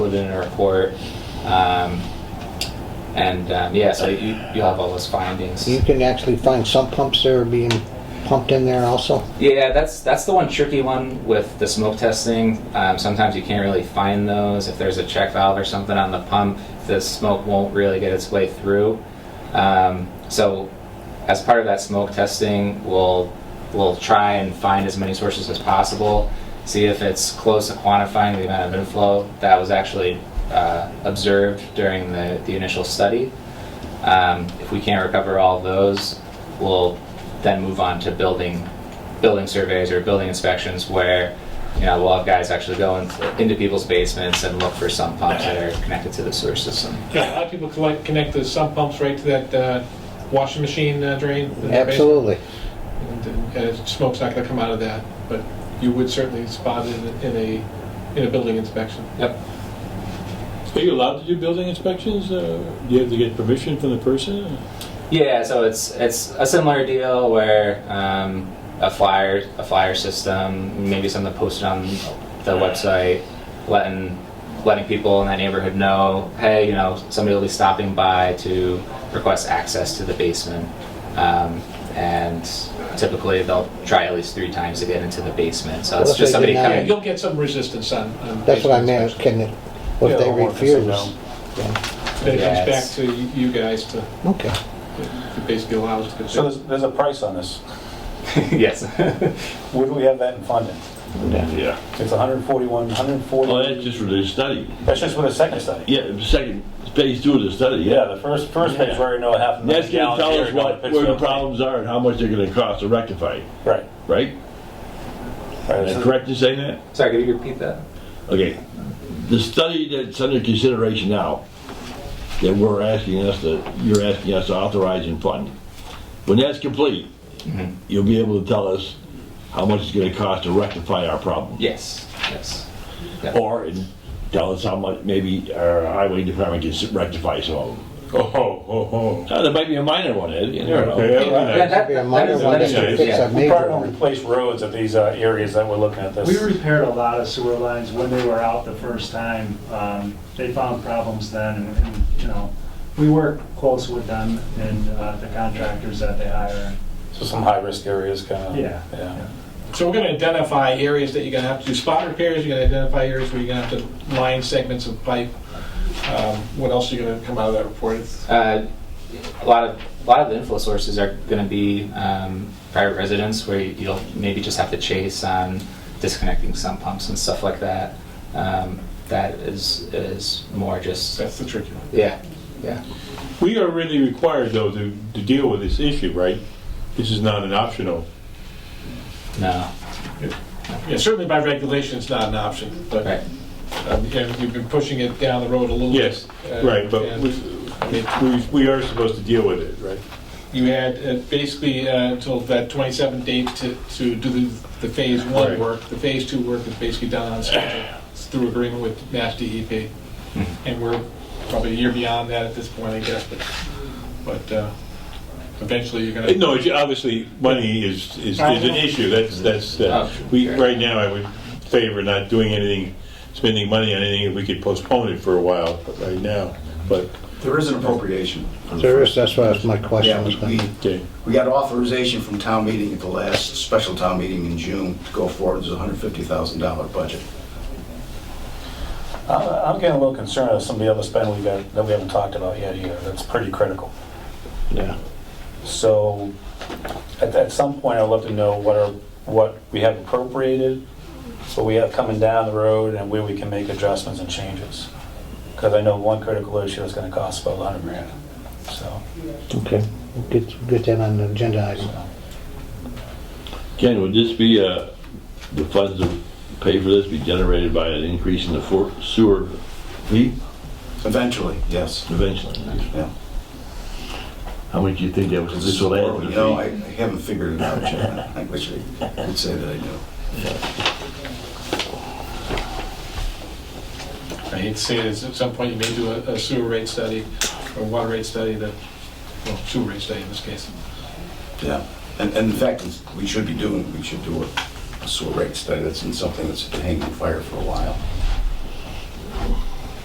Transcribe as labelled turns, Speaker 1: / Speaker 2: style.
Speaker 1: put it in a report. Um, and um, yeah, so you, you'll have all those findings.
Speaker 2: You can actually find some pumps that are being pumped in there also.
Speaker 1: Yeah, that's that's the one tricky one with the smoke testing. Um, sometimes you can't really find those. If there's a check valve or something on the pump, the smoke won't really get its way through. Um, so, as part of that smoke testing, we'll we'll try and find as many sources as possible. See if it's close to quantifying the amount of inflow that was actually uh, observed during the, the initial study. Um, If we can't recover all those, we'll then move on to building, building surveys or building inspections where, you know, we'll have guys actually go in- into people's basements and look for sump pumps that are connected to the sewer system.
Speaker 3: Yeah, a lot of people collect, connect the sump pumps right to that uh, washing machine uh, drain. in their basement,
Speaker 2: Absolutely.
Speaker 3: And uh, smoke's not gonna come out of that, but you would certainly spot it in a- in a, in a building inspection.
Speaker 1: Yep.
Speaker 4: Are you allowed to do building inspections? Uh, Do you have to get permission from the person?
Speaker 1: Yeah, so it's it's a similar deal where um, a flyer a flyer system, maybe something posted on the website, letting letting people in that neighborhood know, hey, you know, somebody will be stopping by to request access to the basement, um, and typically they'll try at least three times to get into the basement. So it's
Speaker 2: Well, if
Speaker 1: just
Speaker 2: they
Speaker 1: somebody
Speaker 2: deny
Speaker 3: Yeah,
Speaker 1: coming.
Speaker 3: you'll get some resistance on. on
Speaker 2: That's what I
Speaker 3: basement
Speaker 2: meant,
Speaker 3: inspection.
Speaker 2: can, it- what if they
Speaker 5: Yeah, or if it's a
Speaker 2: refuse?
Speaker 5: no.
Speaker 3: Then it comes back
Speaker 1: Yes.
Speaker 3: to you- you guys to
Speaker 2: Okay.
Speaker 3: to basically allow us to.
Speaker 5: So there's, there's a price on this.
Speaker 1: yes.
Speaker 5: Where do we have that in funding?
Speaker 6: Yeah.
Speaker 5: It's 141, 140.
Speaker 6: Well, that's just for the study.
Speaker 5: That's just with a second study.
Speaker 6: Yeah, the second phase two of the study,
Speaker 5: Yeah,
Speaker 6: yeah.
Speaker 5: the first, first phase,
Speaker 6: Yeah.
Speaker 5: we already know a half a
Speaker 6: That's
Speaker 5: million
Speaker 6: gonna
Speaker 5: gallons.
Speaker 6: tell
Speaker 5: here
Speaker 6: us
Speaker 5: are going
Speaker 6: what,
Speaker 5: to
Speaker 6: where the
Speaker 5: Pittsfield.
Speaker 6: problems are and how much they're gonna cost to rectify, it,
Speaker 5: Right.
Speaker 6: right?
Speaker 5: Right,
Speaker 6: Am I
Speaker 5: so-
Speaker 6: correct in saying that?
Speaker 1: Sorry, could you repeat that?
Speaker 6: Okay, the study that's under consideration now, that we're asking us to, you're asking us to authorize and fund, when that's complete, you'll be able to tell us how much it's gonna cost to rectify our problem.
Speaker 1: Yes. Yes.
Speaker 6: Or, and tell us how much, maybe our highway department can s- rectify some of them.
Speaker 7: Oh, ho, ho, ho.
Speaker 6: Uh, There might be a minor one, Ed, you never know.
Speaker 7: Okay, all right.
Speaker 1: Yeah, that-
Speaker 2: Be a
Speaker 1: that
Speaker 2: minor
Speaker 1: is-
Speaker 2: one
Speaker 1: that is
Speaker 2: that can
Speaker 1: true,
Speaker 2: fix
Speaker 1: yeah.
Speaker 2: a
Speaker 5: We
Speaker 2: major
Speaker 5: probably don't
Speaker 2: one.
Speaker 5: replace roads at these uh, areas that we're looking at this.
Speaker 8: We repaired a lot of sewer lines when they were out the first time. Um, They found problems then, and- and, you know, we work close with them and uh, the contractors that they hire.
Speaker 5: So some high-risk areas kind of.
Speaker 8: Yeah.
Speaker 5: Yeah.
Speaker 3: So we're gonna identify areas that you're gonna have to do spot repairs, you're gonna identify areas where you're gonna have to line segments of pipe. Um, What else are you gonna come out of that report?
Speaker 1: Uh, a lot of a lot of the inflow sources are going to be um, private residents, where you- you'll maybe just have to chase on disconnecting sump pumps and stuff like that. Um, that is is more just
Speaker 3: That's the tricky one.
Speaker 1: yeah, yeah.
Speaker 7: We are really required, though, to, to deal with this issue, right? This is not an optional.
Speaker 1: No,
Speaker 3: Yeah, certainly by regulation, it's not an option, but
Speaker 1: right.
Speaker 3: um, and you've been pushing it down the road a little.
Speaker 7: Yes,
Speaker 3: bit, uh,
Speaker 7: right, but
Speaker 3: and
Speaker 7: we, we- we are supposed to deal with it, right?
Speaker 3: You had uh, basically uh, until that 27 date to, to do the, the phase one
Speaker 7: Right.
Speaker 3: work. The phase two work is basically done on schedule It's through agreement with Mass DEP.
Speaker 7: Mm-hmm.
Speaker 3: And we're probably a year beyond that at this point, I guess, but, but uh, eventually you're gonna.
Speaker 7: Uh, No, it's- obviously, money is, is, is an issue, that's, that's, uh,
Speaker 1: Oh,
Speaker 7: we,
Speaker 1: sure.
Speaker 7: right now, I would favor not doing anything, spending money on anything, if we could postpone it for a while, but right now, but,
Speaker 9: There is an appropriation.
Speaker 2: There is, that's what my question
Speaker 9: Yeah,
Speaker 2: was
Speaker 9: we,
Speaker 2: gonna
Speaker 9: we,
Speaker 2: be.
Speaker 7: okay.
Speaker 9: we got authorization from town meeting at the last special town meeting in June to go forward, there's a hundred fifty thousand dollar budget.
Speaker 5: I'm I'm getting a little concerned with some of the other spend we got, that we haven't talked about yet either. That's pretty critical.
Speaker 2: Yeah.
Speaker 5: So at, at some point, I'd love to know what are, what we have appropriated, what we have coming down the road, and where we can make adjustments and changes. Because I know one critical issue is gonna cost about a hundred grand, so.
Speaker 2: Okay, We'll get, get that on the agenda item.
Speaker 6: Ken, would this be, uh, the funds to pay for this be generated by an increase in the for- sewer fee
Speaker 9: Eventually, yes.
Speaker 6: eventually?
Speaker 9: Yeah.
Speaker 6: How much do you think that was, this will add to
Speaker 9: You know, I I
Speaker 6: the
Speaker 9: haven't figured it out yet. I wish I could say that I knew.
Speaker 3: I hate to say this, at some point you may do a a sewer rate study or water rate study that, well, sewer rate study in this case.
Speaker 9: Yeah. And, and in fact, it's- we should be doing, we should do a sewer rate study. That's been something that's been hanging fire for a while.